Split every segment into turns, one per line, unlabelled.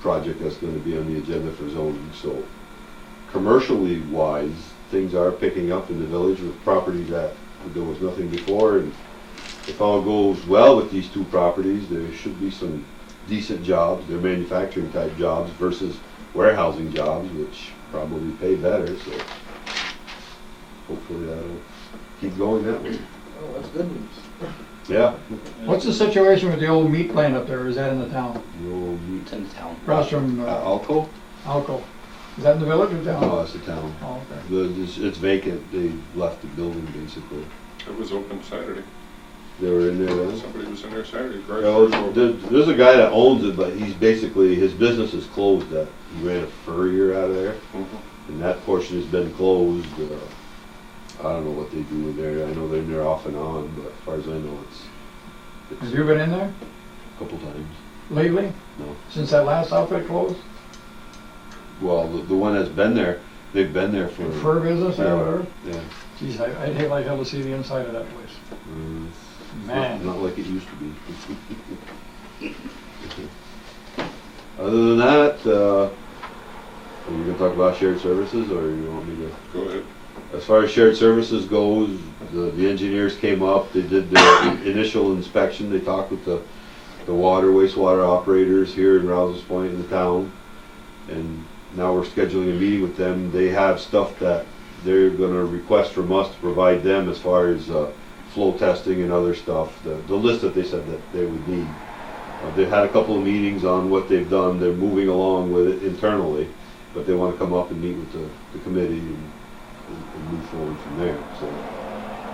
project that's gonna be on the agenda for zoning, so commercially wise, things are picking up in the village with properties that there was nothing before, and if all goes well with these two properties, there should be some decent jobs, they're manufacturing type jobs versus warehousing jobs, which probably pay better, so hopefully that'll keep going that way.
Oh, that's good news.
Yeah.
What's the situation with the old meat plant up there? Is that in the town?
You'll meet
It's in town.
Across from
uh,
uh,
Alco?
Alco? Is that in the village or
No,
town?
it's the town.
Oh, okay.
The, it's- it's vacant, they left the building basically.
It was open Saturday.
They were in there then?
Somebody was in there Saturday.
You
garage
know,
doors open.
there- There's a guy that owns it, but he's basically, his business is closed, that, he ran a furrier out of there.
Mhm.
And that portion has been closed, uh, I don't know what they do in there, I know they're in there off and on, but as far as I know, it's,
Have
it's
you been in there
a couple times.
lately?
No.
Since that last outfit closed?
Well, the, the one that's been there, they've been there for.
Fur business
Mm. Yeah.
or whatever?
Yeah.
Geez, I- I'd hate like hell to see the inside of that place.
Mm,
Man.
Not like it used to be. Other than that, uh, are you gonna talk about shared services or you want me to?
Go ahead.
As far as shared services goes, the, the engineers came up, they did the initial inspection, they talked with the, the water wastewater operators here in Rouse's Point in the town. And now we're scheduling a meeting with them. They have stuff that they're gonna request from us to provide them as far as, uh, flow testing and other stuff, the, the list that they said that they would need. Uh, They've had a couple of meetings on what they've done, they're moving along with it internally, but they wanna come up and meet with the, the committee and and, and move forward from there. So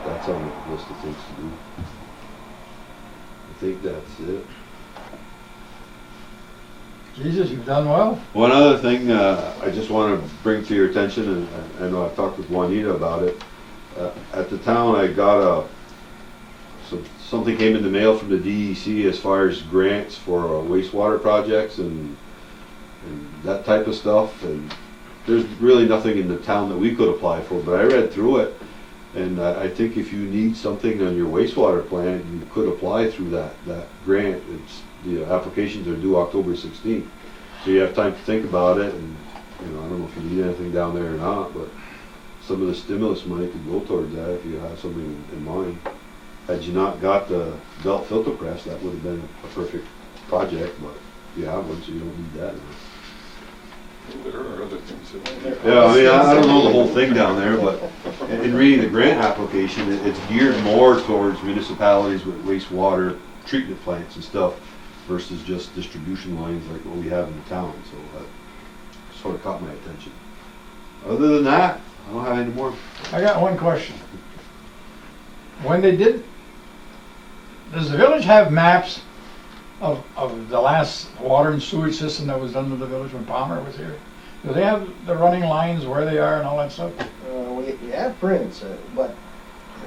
that's on the list of things to do. I think that's it.
Jesus, you've done well.
One other thing uh, I just want to bring to your attention, and I- I know I've talked with Juanita about it. Uh, At the town, I got a, some- something came in the mail from the DEC as far as grants for uh, wastewater projects and, and that type of stuff. And there's really nothing in the town that we could apply for, but I read through it. And I I think if you need something on your wastewater plant, you could apply through that, that grant. It's, the applications are due October 16th. So you have time to think about it, and, you know, I don't know if you need anything down there or not, but some of the stimulus money could go towards that if you have something in- in mind. Had you not got the belt filter press, that would have been a perfect project, but you have one, so you don't need that. now.
There are other things that.
Yeah, I mean, I I don't know the whole thing down there, but in in reading the grant application, it- it's geared more towards municipalities with wastewater treatment plants and stuff versus just distribution lines like what we have in the town, so that sort of caught my attention. Other than that, I don't have any more.
I got one question. When they did, does the village have maps of, of the last water and sewage system that was done to the village when Palmer was here? Do they have the running lines where they are and all that stuff?
Uh, we, we have prints, uh, but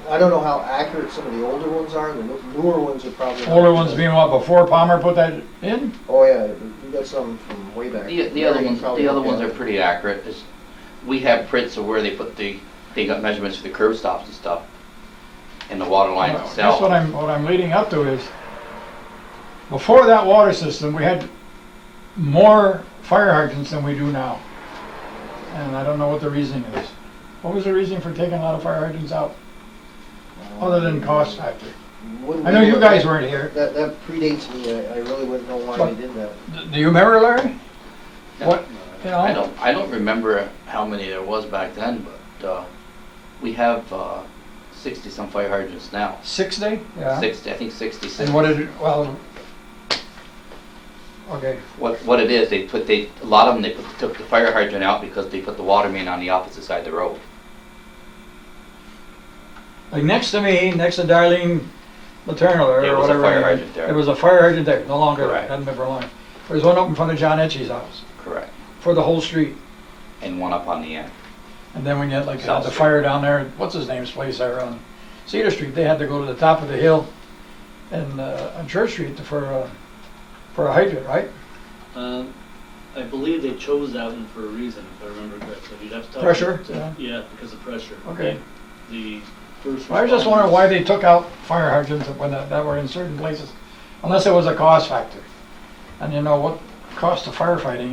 I don't know how accurate some of the older ones are, the new- newer ones are probably. not.
Older ones being what, before Palmer put that in?
Oh, yeah, we got some from way back.
The, the other
Larry
ones,
probably
the other
looked
ones
at
are
it.
pretty accurate. It's- We have prints of where they put the, they got measurements for the curb stops and stuff, and the water lines
Well, That's what
itself.
I'm, what I'm leading up to is, before that water system, we had more fire hydrants than we do now. And I don't know what the reasoning is. What was the reasoning for taking a lot of fire hydrants out, other than Oh, cost factor?
Wouldn't
I know
we-
you guys weren't here.
That, that predates me, I, I really wouldn't know why
But-
they did that.
D- Do you remember, Larry?
No.
What, you
I
know,
don't, I don't remember how many there was back then, but, uh, we have, uh, sixty-some fire hydrants now.
six day? Yeah.
Sixty, I think sixty-six.
And what did, it- well, okay,
What, what it is, they put, they, a lot of them, they put, took the fire hydrant out because they put the water main on the opposite side of the road.
like next to me, next to Darlene Maternal or whatever.
There was a fire
her name-
hydrant there.
There was a fire hydrant there, no longer, there,
Correct.
hasn't been for long. There was one up in front of John Etche's house.
Correct.
for the whole street.
And one up on the end.
And then when you had like
South
the
Street.
fire down there, what's his name's place there on Cedar Street, they had to go to the top of the hill and uh, on Church Street for uh, for a hydrant, right?
Um, I believe they chose that one for a reason, if I remember correctly. You'd
Uh,
have to. talk to-
Pressure,
to-
yeah.
Yeah, because of pressure.
Okay.
The first.
I was just wondering why they took out fire hydrants when that, that were in certain places, unless it was a cost factor. And you know what? cost of firefighting